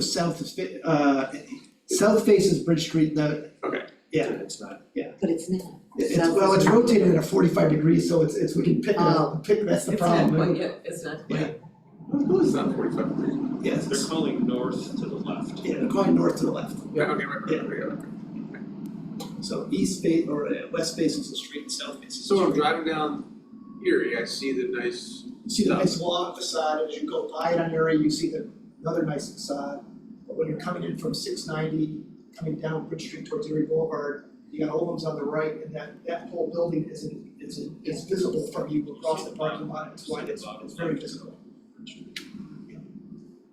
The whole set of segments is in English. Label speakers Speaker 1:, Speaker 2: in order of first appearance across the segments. Speaker 1: south is, fa- uh, south faces Bridge Street, the, Yeah.
Speaker 2: It's not,
Speaker 3: but it's not.
Speaker 1: it's,
Speaker 3: South
Speaker 1: well, it's
Speaker 3: is-
Speaker 1: rotated at forty-five degrees, so it's, it's, we can pick it
Speaker 3: Oh.
Speaker 1: up, pick, that's the
Speaker 4: It's not
Speaker 1: problem.
Speaker 4: quite, yeah, it's not quite.
Speaker 5: Well, it's not forty-five degrees.
Speaker 1: Yes,
Speaker 2: they're calling north to the left.
Speaker 1: yeah, they're going north to the left,
Speaker 5: Yeah, okay, right, right, right, right.
Speaker 1: so east face, or uh, west faces the street and south faces the
Speaker 5: So
Speaker 1: street.
Speaker 5: when I'm driving down Erie, I see the nice,
Speaker 1: See the nice log facade, as you go by it on Erie, you see the, another nice facade. But when you're coming in from six ninety, coming down Bridge Street towards Erie Boulevard, you got Olam's on the right, and that, that whole building isn't, isn't, is visible from you across the parking lot, it's wide, it's, it's very visible.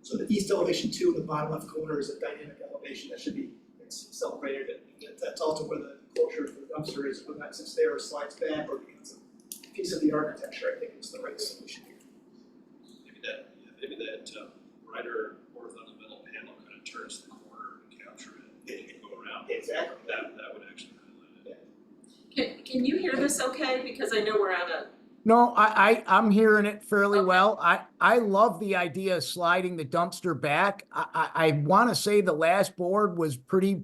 Speaker 1: So the east elevation two in the bottom left corner is a dynamic elevation that should be celebrated, and that- that's also where the closure for the dumpster is, when that sits there, slides back, or becomes a piece of the architecture, I think is the right solution here.
Speaker 2: Maybe that, yeah, maybe that um, brighter horizontal panel kind of turns the corner and capture it, and you go around,
Speaker 1: Exactly.
Speaker 2: that, that would actually highlight it.
Speaker 4: Can, can you hear this okay? Because I know we're on a,
Speaker 6: No, I, I, I'm hearing it fairly
Speaker 4: Okay.
Speaker 6: well. I, I love the idea of sliding the dumpster back. I, I, I want to say the last board was pretty,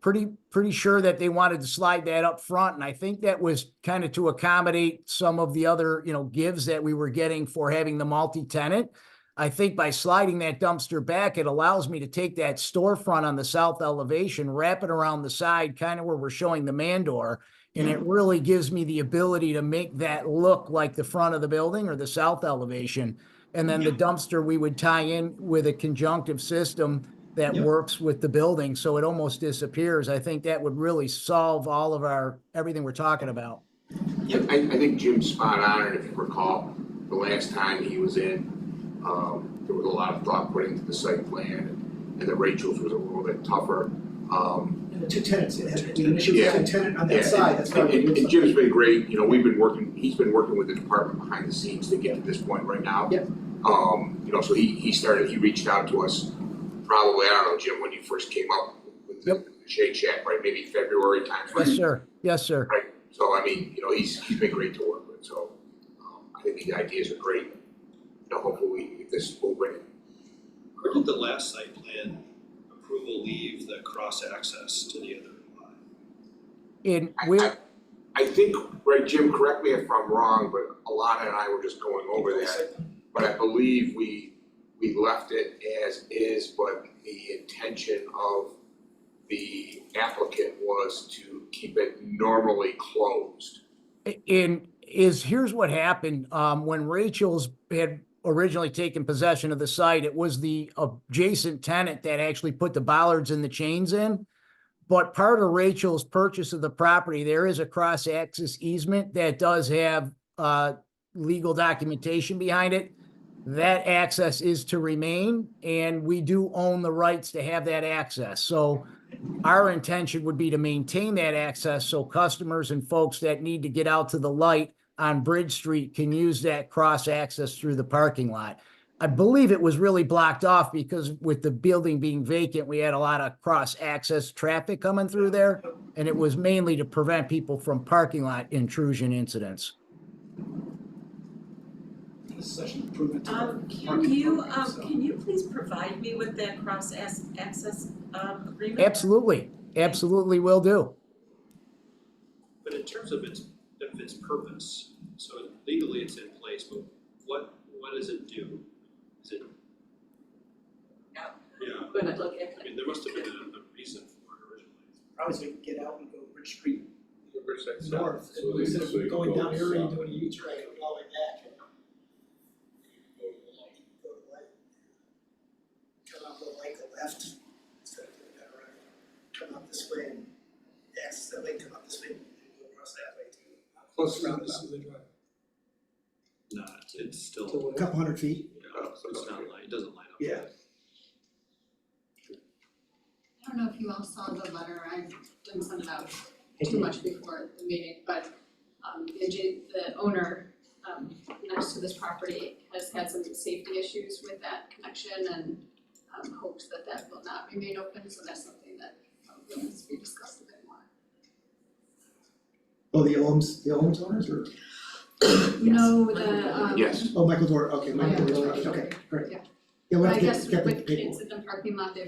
Speaker 6: pretty, pretty sure that they wanted to slide that up front. And I think that was kind of to accommodate some of the other, you know, gives that we were getting for having the multi-tenant. I think by sliding that dumpster back, it allows me to take that storefront on the south elevation, wrap it around the side, kind of where we're showing the mandor. And it really gives me the ability to make that look like the front of the building or the south elevation. And then the dumpster, we would tie in with a conjunctive system that
Speaker 1: Yeah.
Speaker 6: works with the building, so it almost disappears. I think that would really solve all of our, everything we're talking about.
Speaker 5: I, I think Jim's spot on, and if you recall, the last time he was in, um, there was a lot of thought put into the site plan, and the Rachel's was a little bit tougher. Um,
Speaker 1: Two tenants, it had to be an issue with
Speaker 5: Yeah.
Speaker 1: two tenant on
Speaker 5: Yeah,
Speaker 1: that side, that's why
Speaker 5: And,
Speaker 1: we
Speaker 5: and-
Speaker 1: did
Speaker 5: and Jim's
Speaker 1: something.
Speaker 5: been great, you know, we've been working, he's been working with the department behind the scenes to get to this point right now.
Speaker 1: Yep.
Speaker 5: Um, you know, so he, he started, he reached out to us, probably, I don't know, Jim, when you first came up with the Shake Shack, right, maybe February
Speaker 6: Yes,
Speaker 5: timeframe.
Speaker 6: sir. Yes, sir.
Speaker 5: So, I mean, you know, he's, he's been great to work with, so, um, I think the ideas are great. You know, hopefully, if this will bring it.
Speaker 2: Where did the last site plan approval leave the cross access to the other lot?
Speaker 6: And
Speaker 5: I-
Speaker 6: we're,
Speaker 5: I- I think, right, Jim, correct me if I'm wrong, but Alana and I were just going over that. But I believe we, we left it as is, but the intention of the applicant was to keep it normally closed.
Speaker 6: And is, here's what happened, um, when Rachel's had originally taken possession of the site, it was the adjacent tenant that actually put the bollards and the chains in. But part of Rachel's purchase of the property, there is a cross-access easement that does have, uh, legal documentation behind it. That access is to remain, and we do own the rights to have that access, so our intention would be to maintain that access so customers and folks that need to get out to the light on Bridge Street can use that cross access through the parking lot. I believe it was really blocked off because with the building being vacant, we had a lot of cross access traffic coming through there. And it was mainly to prevent people from parking lot intrusion incidents.
Speaker 1: This is such an improvement to the
Speaker 4: um, can
Speaker 1: parking
Speaker 4: you,
Speaker 1: program,
Speaker 4: um,
Speaker 1: so.
Speaker 4: can you please provide me with that cross ac- access, um, agreement?
Speaker 6: Absolutely, absolutely will do.
Speaker 2: But in terms of its, of its purpose, so legally it's in place, but what, what does it do? Is it?
Speaker 4: Out.
Speaker 2: Yeah,
Speaker 4: I'm gonna look at
Speaker 2: I
Speaker 4: it.
Speaker 2: mean, there must have been a, a reason for it originally.
Speaker 1: Probably so we can get out and go Bridge Street north, and instead of going down Erie and doing a U-turn, go all the way back. and Go to the light. Come out the light, go left, instead of doing that right. Come out this way, and access that way, come out this way, and go across that way too.
Speaker 5: Plus,
Speaker 1: Round about
Speaker 2: Not, it's still,
Speaker 1: to a couple hundred feet.
Speaker 2: no, it's not light, it doesn't light up.
Speaker 1: Yeah.
Speaker 7: I don't know if you all saw the letter, I didn't send it out too much before the meeting, but um the adja- the owner um next to this property has had some safety issues with that connection and um hopes that that will not remain open, so that's something that probably needs to be discussed a bit more.
Speaker 1: Oh, the Elms, the Elms owners or?
Speaker 7: No, the um
Speaker 5: Yes,
Speaker 1: Oh, Michael Dor, okay, Michael
Speaker 7: Michael
Speaker 1: Dor's
Speaker 7: Dorr.
Speaker 1: project, okay, great.
Speaker 7: Yeah.
Speaker 1: Yeah,
Speaker 7: But
Speaker 1: we'll
Speaker 7: I
Speaker 1: have to
Speaker 7: guess
Speaker 1: get, get the
Speaker 7: with
Speaker 1: paperwork.
Speaker 7: kids in the parking lot, they've